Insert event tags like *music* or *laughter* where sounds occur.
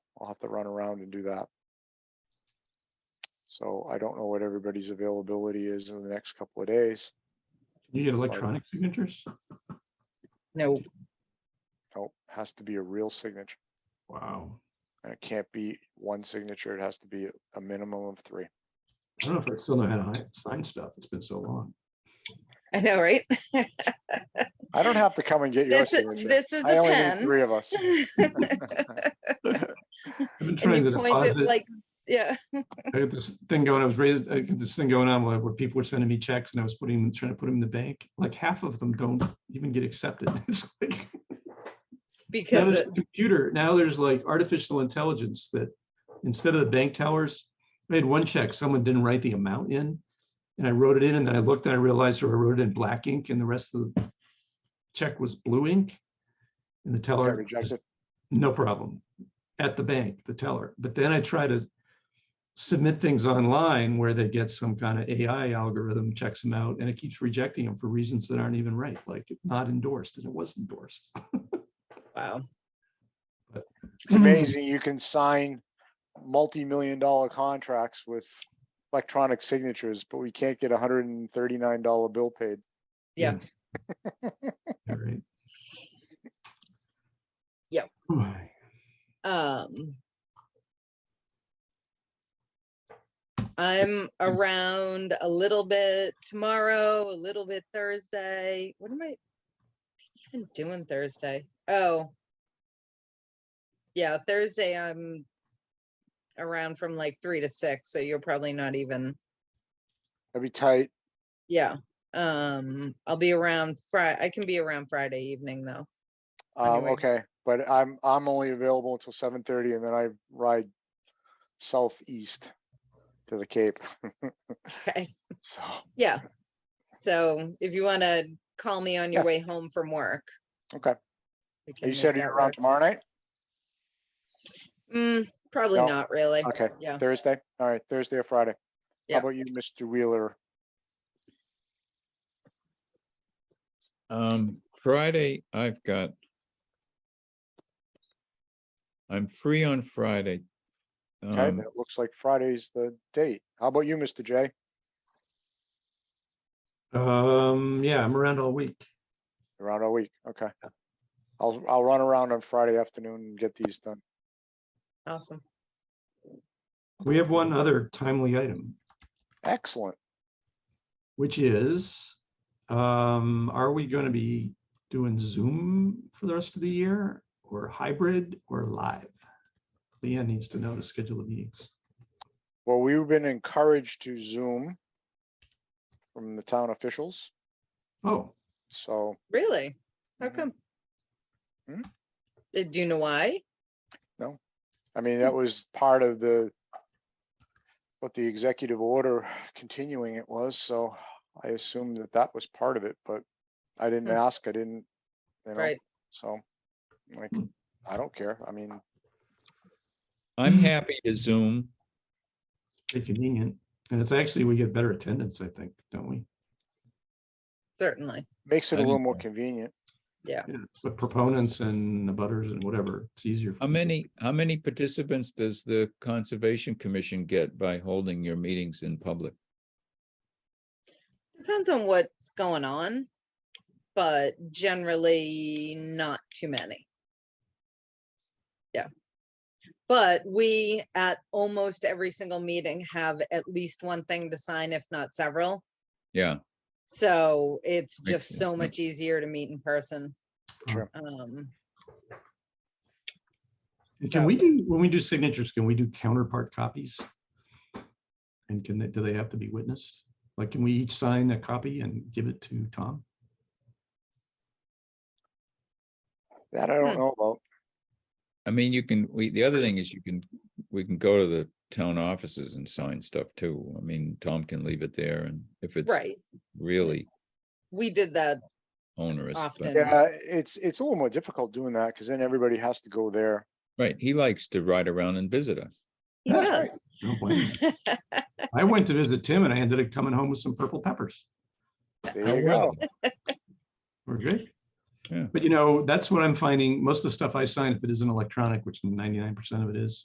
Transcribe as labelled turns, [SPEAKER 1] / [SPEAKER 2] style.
[SPEAKER 1] I'll have to run around and do that. So I don't know what everybody's availability is in the next couple of days.
[SPEAKER 2] You get electronic signatures?
[SPEAKER 3] No,
[SPEAKER 1] Nope, has to be a real signature.
[SPEAKER 2] Wow.
[SPEAKER 1] And it can't be one signature. It has to be a minimum of three.
[SPEAKER 2] I don't know if I still know how to hi- sign stuff. It's been so long.
[SPEAKER 3] *laughs* I know, right?
[SPEAKER 1] I don't have to come and get your
[SPEAKER 3] This is,
[SPEAKER 1] signature.
[SPEAKER 3] this is
[SPEAKER 1] I
[SPEAKER 3] a
[SPEAKER 1] only need
[SPEAKER 3] pen.
[SPEAKER 1] three of
[SPEAKER 3] *laughs*
[SPEAKER 1] us.
[SPEAKER 2] I've been
[SPEAKER 3] And
[SPEAKER 2] trying to
[SPEAKER 3] you point it
[SPEAKER 2] deposit.
[SPEAKER 3] like, yeah,
[SPEAKER 2] I got this thing going, I was raised, I got this thing going on where where people were sending me checks and I was putting, them- trying to put them in the bank. Like half of them don't even get accepted. *laughs* It's like, now
[SPEAKER 3] because
[SPEAKER 2] there's a
[SPEAKER 3] it-
[SPEAKER 2] computer, now there's like artificial intelligence that instead of the bank tellers, I had one check, someone didn't write the amount in. And I wrote it in and then I looked and I realized, or I wrote it in black ink and the rest of the check was blue ink. And the
[SPEAKER 1] I
[SPEAKER 2] teller just
[SPEAKER 1] rejected.
[SPEAKER 2] no problem at the bank, the teller. But then I try to submit things online where they get some kind of AI algorithm checks them out and it keeps rejecting them for reasons that aren't even right, like not endorsed and it was endorsed.
[SPEAKER 3] wow,
[SPEAKER 1] It's amazing. You can sign multi-million dollar contracts with electronic signatures, but we can't get a hundred and thirty-nine dollar bill paid.
[SPEAKER 3] Yeah.
[SPEAKER 2] All right.
[SPEAKER 3] Yep.
[SPEAKER 2] Why?
[SPEAKER 3] um. I'm around a little bit tomorrow, a little bit Thursday. What am I even doing Thursday? Oh. Yeah, Thursday I'm around from like three to six, so you're probably not even.
[SPEAKER 1] That'd be tight.
[SPEAKER 3] Yeah, um, I'll be around Fri- I can be around Friday evening though.
[SPEAKER 1] Um,
[SPEAKER 3] Anyway.
[SPEAKER 1] okay, but I'm, I'm only available until seven thirty and then I ride southeast to the Cape. *laughs*
[SPEAKER 3] Okay, *laughs*
[SPEAKER 1] So,
[SPEAKER 3] yeah. So if you wanna call me on your
[SPEAKER 1] Yeah.
[SPEAKER 3] way home from work.
[SPEAKER 1] okay,
[SPEAKER 3] we can
[SPEAKER 1] you
[SPEAKER 3] make
[SPEAKER 1] said
[SPEAKER 3] that
[SPEAKER 1] you're around
[SPEAKER 3] work.
[SPEAKER 1] tomorrow night?
[SPEAKER 3] Mm, probably
[SPEAKER 1] No.
[SPEAKER 3] not really.
[SPEAKER 1] Okay,
[SPEAKER 3] Yeah, Uh-huh.
[SPEAKER 1] Thursday? All right, Thursday or Friday?
[SPEAKER 3] Yeah.
[SPEAKER 1] How about you, Mr. Wheeler?
[SPEAKER 4] Um, Friday, I've got. I'm free on Friday.
[SPEAKER 1] Okay, then
[SPEAKER 4] Um,
[SPEAKER 1] it looks like Friday's the date. How about you, Mr. J?
[SPEAKER 2] Um, yeah, I'm around all week.
[SPEAKER 1] Around all week, okay. I'll, I'll run around on Friday afternoon and get these done.
[SPEAKER 3] awesome.
[SPEAKER 2] We have one other timely item,
[SPEAKER 1] Excellent.
[SPEAKER 2] which is, um, are we going to be doing Zoom for the rest of the year or hybrid or live? Leanne needs to know to schedule the meetings.
[SPEAKER 1] Well, we've been encouraged to Zoom from the town officials,
[SPEAKER 2] Oh,
[SPEAKER 1] so.
[SPEAKER 3] Really? How
[SPEAKER 1] Mhm.
[SPEAKER 3] come?
[SPEAKER 1] Hmm?
[SPEAKER 3] Uh, Do you know why?
[SPEAKER 1] I mean,
[SPEAKER 3] Mm.
[SPEAKER 1] that was part of the, what the executive order continuing it was, so I assumed that that was part of it, but I didn't
[SPEAKER 3] Hmm.
[SPEAKER 1] ask, I didn't, you know,
[SPEAKER 3] Right,
[SPEAKER 1] so, like,
[SPEAKER 2] Hmm.
[SPEAKER 4] Mm.
[SPEAKER 1] I don't care, I mean,
[SPEAKER 4] I'm happy to Zoom.
[SPEAKER 2] pretty convenient. And it's actually, we get better attendance, I think, don't we?
[SPEAKER 3] certainly.
[SPEAKER 1] makes it a
[SPEAKER 4] I
[SPEAKER 1] little
[SPEAKER 4] didn't
[SPEAKER 1] more
[SPEAKER 4] care.
[SPEAKER 1] convenient.
[SPEAKER 2] Yeah, But proponents and the butters and whatever, it's easier. for
[SPEAKER 4] How
[SPEAKER 2] people.
[SPEAKER 4] many, how many participants does the Conservation Commission get by holding your meetings in public?
[SPEAKER 3] Depends on what's going on, but generally not too many. Yeah. But we at almost every single meeting have at least one thing to sign, if not several.
[SPEAKER 4] Yeah,
[SPEAKER 3] So it's just
[SPEAKER 4] sense,
[SPEAKER 3] so
[SPEAKER 4] yep.
[SPEAKER 3] much easier to meet in person.
[SPEAKER 1] Sure.
[SPEAKER 3] Um,
[SPEAKER 2] And Can
[SPEAKER 3] so-
[SPEAKER 2] we do, when we do signatures, can we do counterpart copies? And can they, do they have to be witnessed? Like, can we each sign a copy and give it to Tom?
[SPEAKER 1] That I
[SPEAKER 3] Hmm.
[SPEAKER 1] don't know about,
[SPEAKER 4] I mean, you can, we, the other thing is you can, we can go to the town offices and sign stuff too. I mean, Tom can leave it there and if it's
[SPEAKER 3] right,
[SPEAKER 4] really
[SPEAKER 3] we did that
[SPEAKER 4] onerous. but-
[SPEAKER 3] Often. Yeah.
[SPEAKER 1] yeah, it's, it's a little more difficult doing that, because then everybody has to go there.
[SPEAKER 4] Right, he likes to ride around and visit us.
[SPEAKER 3] He
[SPEAKER 2] That's
[SPEAKER 3] does.
[SPEAKER 2] No
[SPEAKER 3] *laughs*
[SPEAKER 2] blame. I went to visit Tim and I ended up coming home with some purple peppers.
[SPEAKER 4] How
[SPEAKER 1] There you
[SPEAKER 4] well.
[SPEAKER 1] go.
[SPEAKER 2] We're good.
[SPEAKER 4] Yeah.
[SPEAKER 2] But you know, that's what I'm finding. Most of the stuff I sign, if it isn't electronic, which ninety-nine percent of it is,